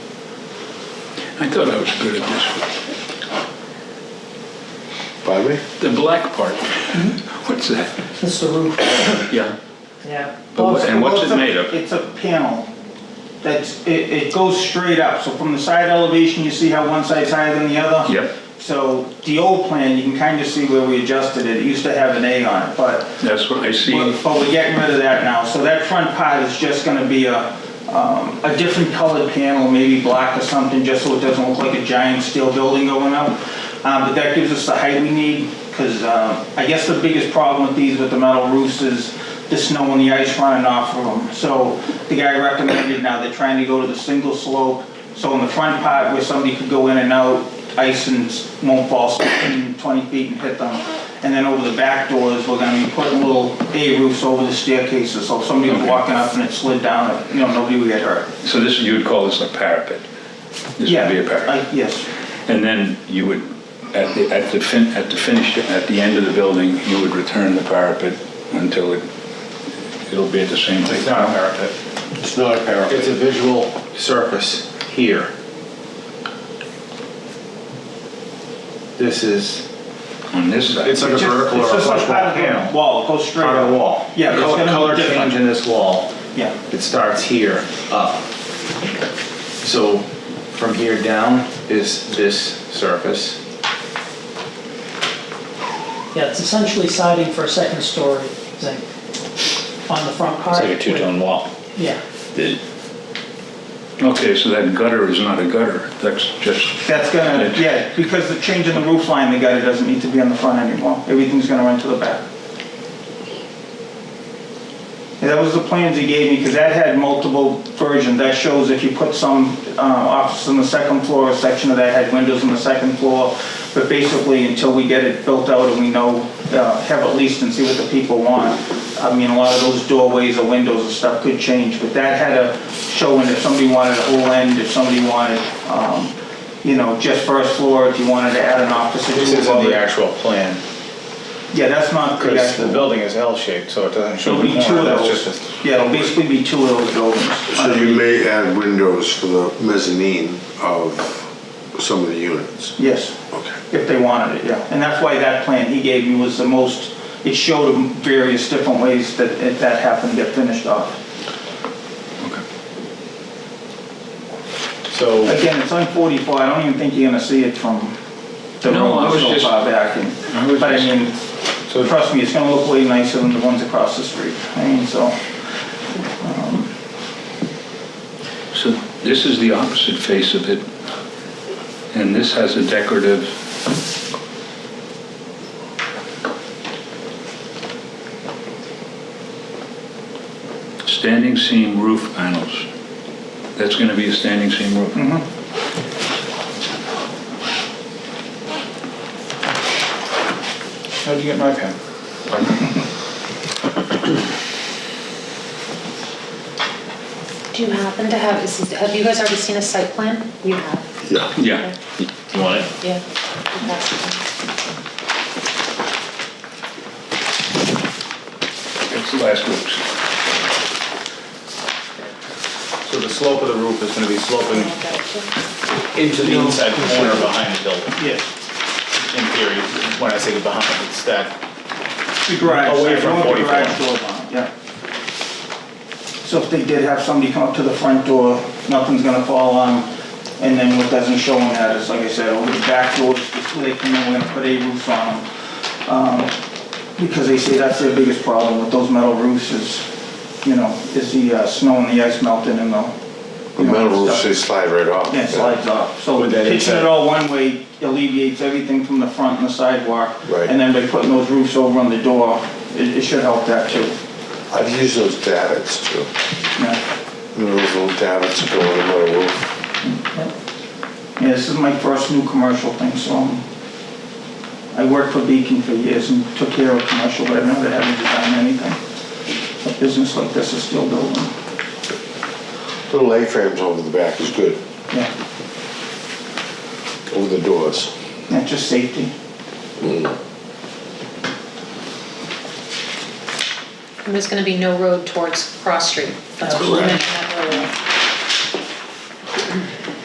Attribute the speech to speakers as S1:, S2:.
S1: I thought I was good at this.
S2: Pardon me?
S1: The black part. What's that?
S3: It's the roof,
S1: Mm-hmm. Yeah.
S3: yeah.
S1: But what- and what's it made of?
S4: It's a panel that's, it, it goes straight up, so from the side elevation, you see how one side's higher than the other?
S1: Yep.
S4: So the old plan, you can kind of see where we adjusted it, it used to have an A on it, but,
S1: That's what I see.
S4: but but we're getting rid of that now, so that front part is just gonna be a, um, a different colored panel, maybe black or something, just so it doesn't look like a giant steel building going up. Um, but that gives us the height we need, because, um, I guess the biggest problem with these, with the metal roofs, is the snow and the ice running off of them. So the guy recommended now they're trying to go to the single slope, so in the front part where somebody could go in and out, ice and s- won't fall 16, 20 feet and hit them. And then over the back doors, we're gonna be putting little A roofs over the staircases, so if somebody was walking up and it slid down, you know, nobody would get hurt.
S1: So this, you would call this a parapet? This would be a parapet?
S4: I- Yes,
S1: And then you would, at the, at the fin, at the finish, at the end of the building, you would return the parapet until it, it'll be at the same height?
S5: It's not a parapet.
S2: It's not a parapet.
S5: It's a visual surface here. This is,
S1: On this side?
S5: it's like a
S4: It's just-
S5: vertical
S4: it's
S5: or a
S4: just like
S5: flush
S4: part of the
S5: panel.
S4: wall, it goes straight
S5: On
S4: up.
S5: a wall.
S4: Yeah, it's
S5: Color-
S4: gonna be
S5: Color
S4: different.
S5: change in this wall,
S4: yeah.
S5: it starts here up. So from here down is this surface.
S3: Yeah, it's essentially siding for a second story thing on the front part.
S6: It's like a two-tone wall.
S3: Yeah,
S6: The-
S1: Okay, so that gutter is not a gutter, that's just,
S4: That's gonna, yeah, because the change in the roof line, the gutter doesn't need to be on the front anymore. Everything's gonna run to the back. And that was the plans he gave me, because that had multiple versions. That shows if you put some uh, office on the second floor, a section of that had windows on the second floor. But basically, until we get it built out and we know, uh, have at least and see what the people want. I mean, a lot of those doorways or windows and stuff could change, but that had a showing if somebody wanted a whole end, if somebody wanted, um, you know, just first floor, if you wanted to add an office or two.
S5: This isn't
S4: above
S5: the
S4: it.
S5: actual plan,
S4: Yeah, that's not the
S5: because the
S4: actual.
S5: building is L-shaped, so it doesn't show
S4: It'll
S5: the
S4: be two
S5: corner,
S4: of
S5: that's
S4: those.
S5: just a
S4: Yeah, it'll basically be two of those buildings.
S2: So you may add windows for the mezzanine of some of the units.
S4: Yes,
S2: Okay.
S4: if they wanted it, yeah. And that's why that plan he gave me was the most, it showed them various different ways that if that happened, get finished off.
S5: So
S4: Again, it's on 44, I don't even think you're gonna see it from the
S1: No, I
S4: road
S1: was
S4: so
S1: just-
S4: far back. and-
S1: I was
S4: But I
S1: just-
S4: mean,
S5: So-
S4: trust me, it's gonna look way nicer than the ones across the street. I mean, so,
S1: so this is the opposite face of it, and this has a decorative, standing seam roof panels. That's gonna be a standing seam roof?
S5: How'd you get my pen?
S7: Do you happen to have, is- have you guys already seen a site plan? You have,
S2: Yeah.
S1: Yeah.
S6: You want it?
S7: yeah. Okay.
S1: It's last week's.
S5: So the slope of the roof is gonna be sloping
S6: Into the inside corner behind the building,
S4: yes.
S6: in theory. When I say behind, it's that
S4: The garage,
S6: Away
S4: I
S6: from
S4: want the
S6: 44.
S4: garage door on, yeah. So if they did have somebody come up to the front door, nothing's gonna fall on 'em. And then what doesn't show on that is, like I said, over the back doors, just where they come in, we're gonna put a roof on them. Because they say that's their biggest problem with those metal roofs is, you know, is the uh, snow and the ice melting and the.
S2: The
S4: you know,
S2: metal roofs,
S4: stuff.
S2: they slide right off.
S4: Yeah, it slides off. So
S5: With that
S4: pitching
S5: inside-
S4: it all one way alleviates everything from the front and the sidewalk.
S2: Right.
S4: And then by putting those roofs over on the door, it, it should help that too.
S2: I've used those davits too.
S4: Yeah,
S2: You know, Those little davits that go on the metal roof.
S4: Yeah, this is my first new commercial thing, so um, I worked for Beacon for years and took care of commercial, but I've never had to design anything. A business like this is still building.
S2: Little A-frames over the back is good,
S4: Yeah,
S2: over the doors.
S4: not just safety.
S7: And there's gonna be no road towards Cross Street. That's what you
S2: Correct.
S7: mentioned at